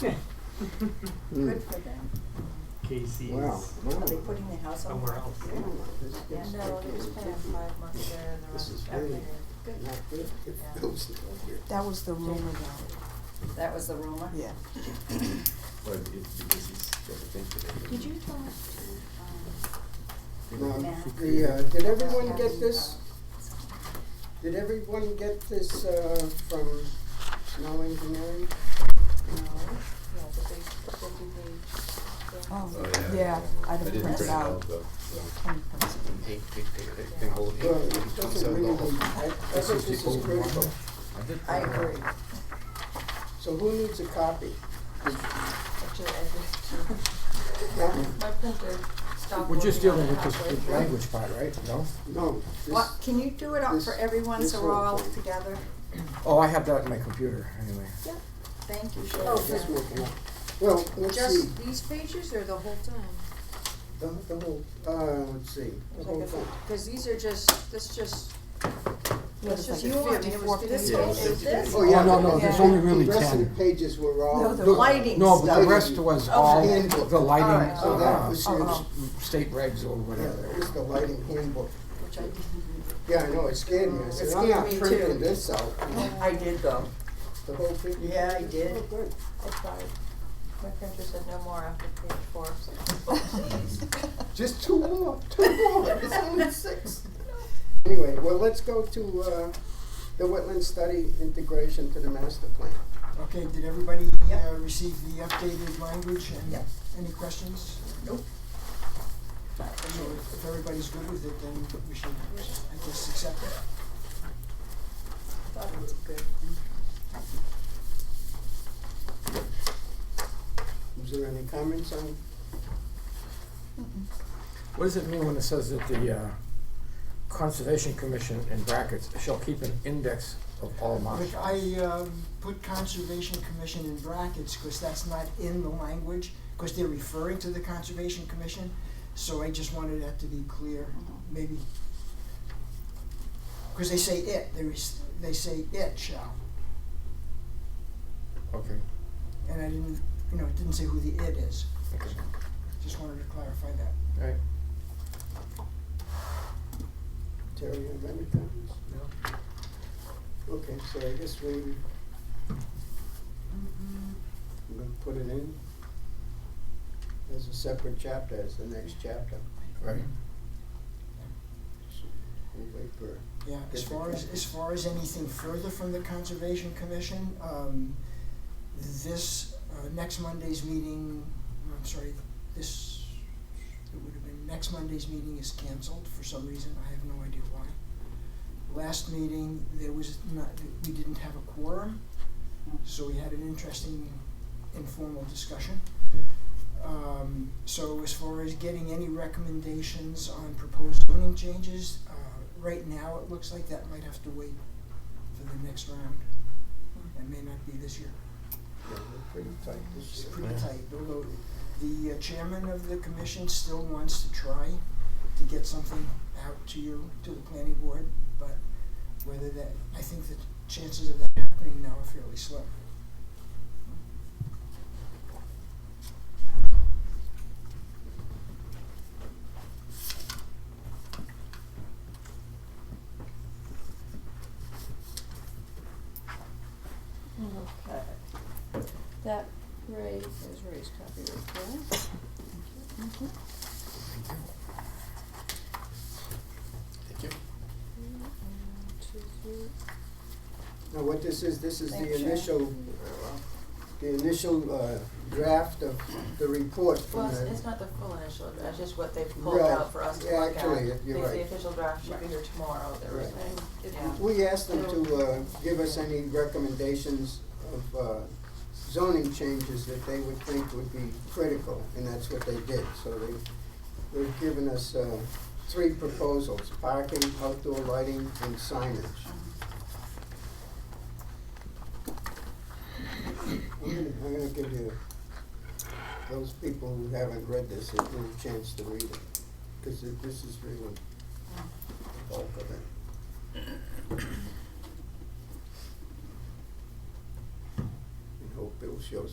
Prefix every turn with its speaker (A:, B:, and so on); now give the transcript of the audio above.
A: Mm.
B: Good for them.
C: Casey's
A: Wow.
B: Are they
A: Wow.
B: putting the house on?
C: somewhere else.
B: fire?
A: Wow, this is
D: Yeah, no, they just spent five months there and the
A: This
D: rest
A: is
D: back
A: really-
D: there.
B: Good.
A: Not good
D: Yeah.
A: if those are here.
E: That was the rumor though,
B: That was the rumor?
E: yeah.
F: But it, because he's, doesn't think that it.
D: Did you talk to, um,
A: Now,
B: Matt?
A: the, uh, did everyone get this, did everyone get this, uh, from Snow Engineering?
D: um, no, no, but they, they do the,
E: Oh,
F: Oh, yeah.
E: yeah, I
F: I
E: didn't
F: didn't
E: print it out.
F: though, so.
E: Can print it.
F: Eight, eight, eight, eight, eight, whole- eight,
A: Well, it
F: eight,
A: doesn't
F: so the
A: really,
F: whole-
A: I, I think this is critical.
F: I did
B: I
F: print it out.
B: agree.
A: So who needs a copy?
D: actually, I just,
A: No,
D: my printer stopped
G: We're just dealing
D: working
G: with
D: on
G: this
D: it halfway
G: big
D: through.
G: language part, right? No?
A: no,
B: What,
A: this,
B: can you do it up for
A: this-
B: everyone
A: this
B: so we're
A: whole
B: all
A: thing.
B: together?
G: Oh, I have that in my computer, anyway.
B: Thank you,
A: oh, this
B: Sharon.
A: one, yeah. Well, let's see,
D: Just these pages or the whole time?
A: the, the whole, uh, let's see, the whole thing.
D: Cause these are just, this just,
E: Yeah,
D: that's
E: it's like
D: just you on it, it
E: 54
D: was this
F: Yeah,
D: whole,
F: it's
D: is this?
A: Oh, yeah,
G: Oh, no, no,
A: the-
E: there's
A: the-
G: only really
A: The rest of
G: 10.
A: the pages were all.
B: No, the
G: Look,
B: lighting
G: No, but
B: stuff.
G: the rest was all
A: handbook.
G: the
B: All right.
G: lighting,
A: So that
G: uh,
A: was
E: Oh,
A: his,
E: oh.
G: state regs or
A: yeah,
G: whatever.
A: that was the lighting handbook.
B: Which I did.
A: Yeah, I know, it scared me, I
B: It
A: said, I'm
B: scared
A: not
B: me too.
A: printing this out, you know,
B: I did though.
A: the whole thing.
B: Yeah, I did.
A: Oh, good.
D: I tried, my printer said no more after page four, Oh, so.
A: Just two more, two more, it's only six. Anyway, well, let's go to, uh, the wetland study integration to the master plan.
G: Okay, did everybody
H: uh,
B: Yep.
G: receive the updated language
B: Yep.
G: any questions?
B: Nope.
G: So if, if everybody's good with it, then we should, I guess, accept it.
B: Thought it was good.
A: Is there any comments on,
G: What does it mean when it says that the uh, Conservation Commission, in brackets, shall keep an index of all
H: But
G: marsh?
H: I um, put Conservation Commission in brackets, because that's not in the language, because they're referring to the Conservation Commission, so I just wanted that to be clear,
B: Mm-hmm.
H: maybe. Because they say it, there is, they say it shall,
G: Okay.
H: and I didn't, you know, it didn't say who the it is,
G: okay.
H: just wanted to clarify that.
G: All right.
A: Terry, you have any comments? No. Okay, so I guess we, I'm gonna put it in as a separate chapter, as the next chapter.
G: Right.
A: So We'll wait for,
H: Yeah, as
A: Good to
H: far as,
A: know.
H: as far as anything further from the Conservation Commission, um, this, uh, next Monday's meeting, I'm sorry, this, it would have been, next Monday's meeting is canceled for some reason, I have no idea why. Last meeting, there was not, we didn't have a quorum, so we had an interesting informal discussion. Um, so as far as getting any recommendations on proposed zoning changes, uh, right now, it looks like that might have to wait for the next round. It may not be this year.
A: yeah, we're pretty tight
H: It's
A: this year.
H: pretty
G: Yeah.
H: tight, although the uh, chairman of the commission still wants to try to get something out to you, to the planning board, but whether that, I think the chances of that happening now are fairly slim.
D: Okay. That Ray is Ray's copy right there.
F: Thank you.
D: Two, three.
A: Now, what this is, this is the
D: Thanks, Sharon.
A: initial, the initial, uh, draft of the report
D: Well,
A: from
D: it's,
A: the,
D: it's not the full initial draft, it's just what they've pulled
A: Right.
D: out for us to
A: Yeah,
D: look at.
A: actually, you're
D: Because
A: right.
D: The official draft should be here tomorrow, they were
A: Right.
D: saying, yeah.
A: we asked them to, uh, give us any recommendations of, uh, zoning changes that they would think would be critical, and that's what they did, so they, they've given us, uh, three proposals, parking, outdoor lighting, and signage. I'm gonna, I'm gonna give you, those people who haven't read this, a little chance to read it, because this is really the bulk of it. And hope Bill shows